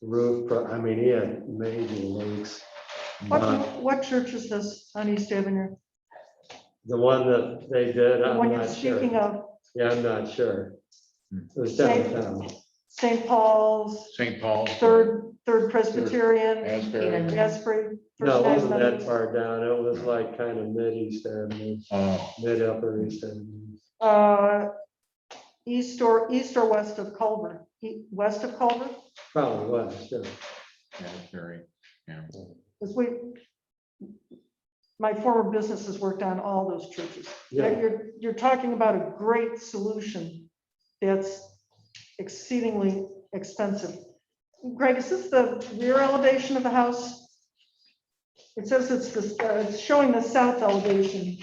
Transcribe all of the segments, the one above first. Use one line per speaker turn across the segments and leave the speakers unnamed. roof, but I mean, yeah, maybe leaks. Uh,
What, what church is this on East Avenue?
The one that they did,
The
I'm
one you're
not
speaking
sure.
of,
Yeah, I'm not sure.
Hmm.
It was downtown.
St. Paul's,
St. Paul.
Third, Third Presbyterian,
Asbury.
Asbury.
No, it
First
wasn't that
Methodist.
far down. It was like kind of mid-east avenue,
Oh,
mid-upper east avenue.
Uh, East or, east or west of Culver, E- west of Culver,
Probably was, yeah.
Asbury, yeah.
because we, my former business has worked on all those churches. But
Yeah.
you're, you're talking about a great solution that's exceedingly expensive. Greg, is this the rear elevation of the house? It says it's this, uh, it's showing the south elevation.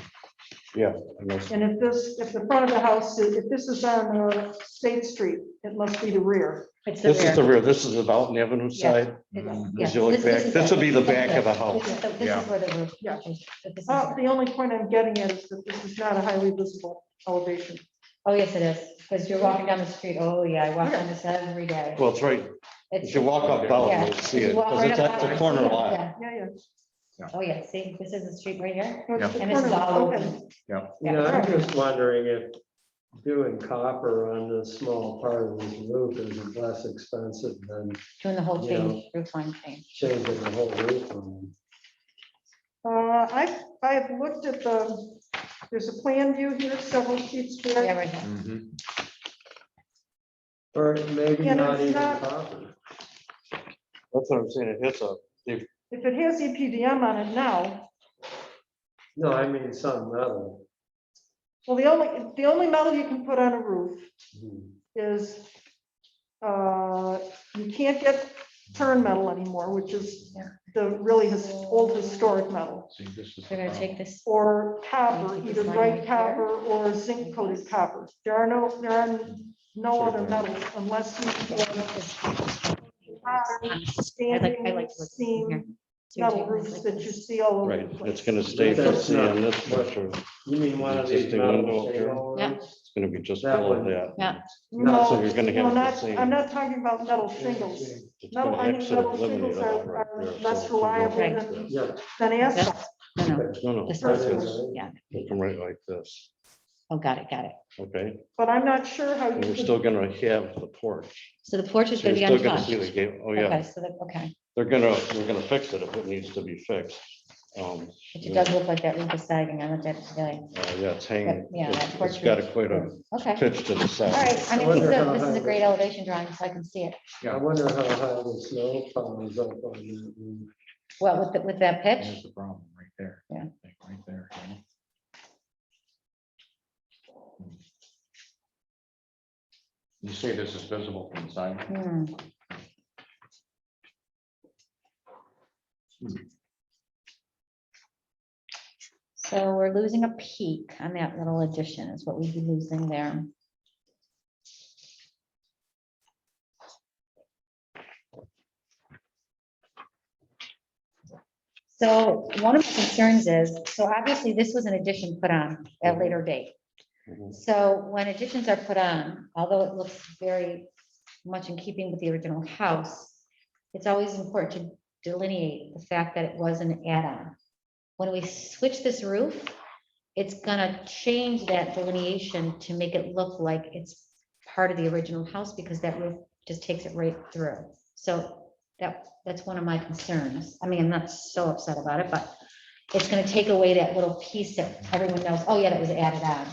Yeah, I guess.
And if this, if the front of the house, is- if this is on uh, State Street, it must be the rear.
It's
This is the
rear.
rear, this is the Dalton Avenue
Yeah.
side.
It's-
Mhm.
yeah,
as you look
this-
back,
is
this would be the back of the house.
This is the- this
Yeah.
is where the roof.
Yeah.
is, but this is-
Uh, The only point I'm getting at is that this is not a highly visible elevation.
Oh, yes, it is, because you're walking down the street, oh, yeah, I walk down this every day.
Well, it's right,
It's-
if you walk up
yeah,
Dalton, you'll see
if
it,
you walk
because
right
it's
up
at the
Dalton,
corner
yeah,
lot.
yeah.
Yeah, yeah.
Oh, yeah, see, this is the street right here,
No, it's the
and this is
corner.
all
Okay.
open.
You know, I'm just wondering if doing copper on the small part of this roof is less expensive than
doing the whole
You
thing, roof line thing.
changing the whole roof. on
Uh, I've, I've looked at the, there's a plan view here, several sheets
Yeah,
there.
right here.
Mhm.
it. Or maybe
Yeah, no,
not
it's
even
not-
copper.
That's what I'm saying, it's a,
If it has E EPDM on it now,
No, I mean some metal.
well, the only, the only metal you can put on a roof
Hmm.
is, uh, you can't get turn metal anymore, which is the really his, old historic metal,
See, this is. the
We're gonna
problem.
take this,
or copper, either bright
Right here.
copper or zinc coated copper. There are no, there are no other metals unless you.
I like, I like. what's in here.
Standing,
So you're
metal
taking this
roofs
like
that you
this.
see all over.
right,
the place.
it's gonna stay for
That's not-
seeing this picture,
You mean one of these
Existing
metal
window up there?
shingle
Yeah.
ones?
it's gonna be just
That
below
one.
that.
Yeah.
So
No,
you're gonna
no,
have the
not,
same.
I'm not talking about metal shingles.
it's
metal-
gonna
I mean,
exit
metal
eliminate
shingles
all
are-
right
are
there, so
less
it's gonna go
reliable
like
than-
this.
Yeah.
Then
That's-
asphalt,
No, no,
No, no,
this
it's
Right there,
is,
right?
yeah,
come right like this,
oh, got it, got it.
okay?
but I'm not sure how
And
you
We're
could,
still gonna have the porch.
So the porch is
So You're
gonna be
still gonna see the
untouched.
gate, oh yeah,
Okay, so that, okay,
they're gonna, we're gonna fix it if it needs to be fixed. Um,
but it does look like that roof is sagging, I looked at it today.
uh, yeah, it's hanging,
Yeah, that
it's
porch
it's got
roof.
quite a
Okay.
pitch to the
All
side.
right, I
I
mean,
wonder
this is a-
how
this is
high-
a great elevation drawing, so I can see it.
I wonder how high the snow piles up on that roof.
Well, with, the- with that pitch,
There's the problem right there.
Yeah.
Like, Right there. you know? Hmm. You say this is visible from the side?
hmm, so we're losing a peak on that little addition is what we'd be losing there. So one of the concerns is, so obviously this was an addition put on at a later date.
Mhm.
So when additions are put on, although it looks very much in keeping with the original house, it's always important to delineate the fact that it was an add-on. When we switch this roof, it's gonna change that delineation to make it look like it's part of the original house because that roof just takes it right through. So that, that's one of my concerns. I mean, I'm not so upset about it, but it's gonna take away that little piece that everyone knows, oh yeah, that was added on.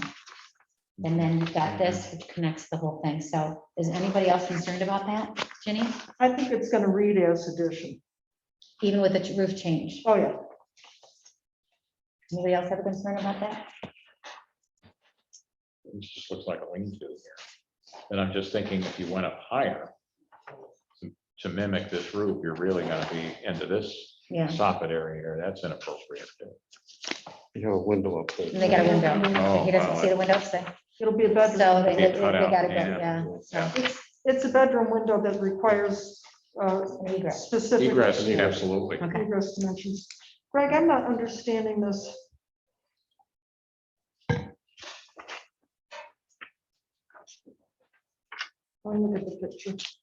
And then you've got this, which connects the whole thing. So is anybody else concerned about that, Jenny?
I think it's gonna read as addition.
Even with the roof change?
Oh, yeah.
Anybody else have a concern about that?
It just looks like a lean-to here. And I'm just thinking, if you went up higher to- to mimic this roof, you're really gonna be into this
Yeah,
soffit area here. That's inappropriate. too.
You have a window up there.
and they got a window.
Oh, wow,
He doesn't see the window, so
It'll be a
so
bedroom.
they,
Be
they
a
they
cutout,
gotta go,
yeah.
yeah. so
It's, it's a bedroom window that requires, uh,
an egress.
specific.
Egress, absolutely.
Okay.
Egress dimensions. Greg, I'm not understanding this. Let me look at the picture.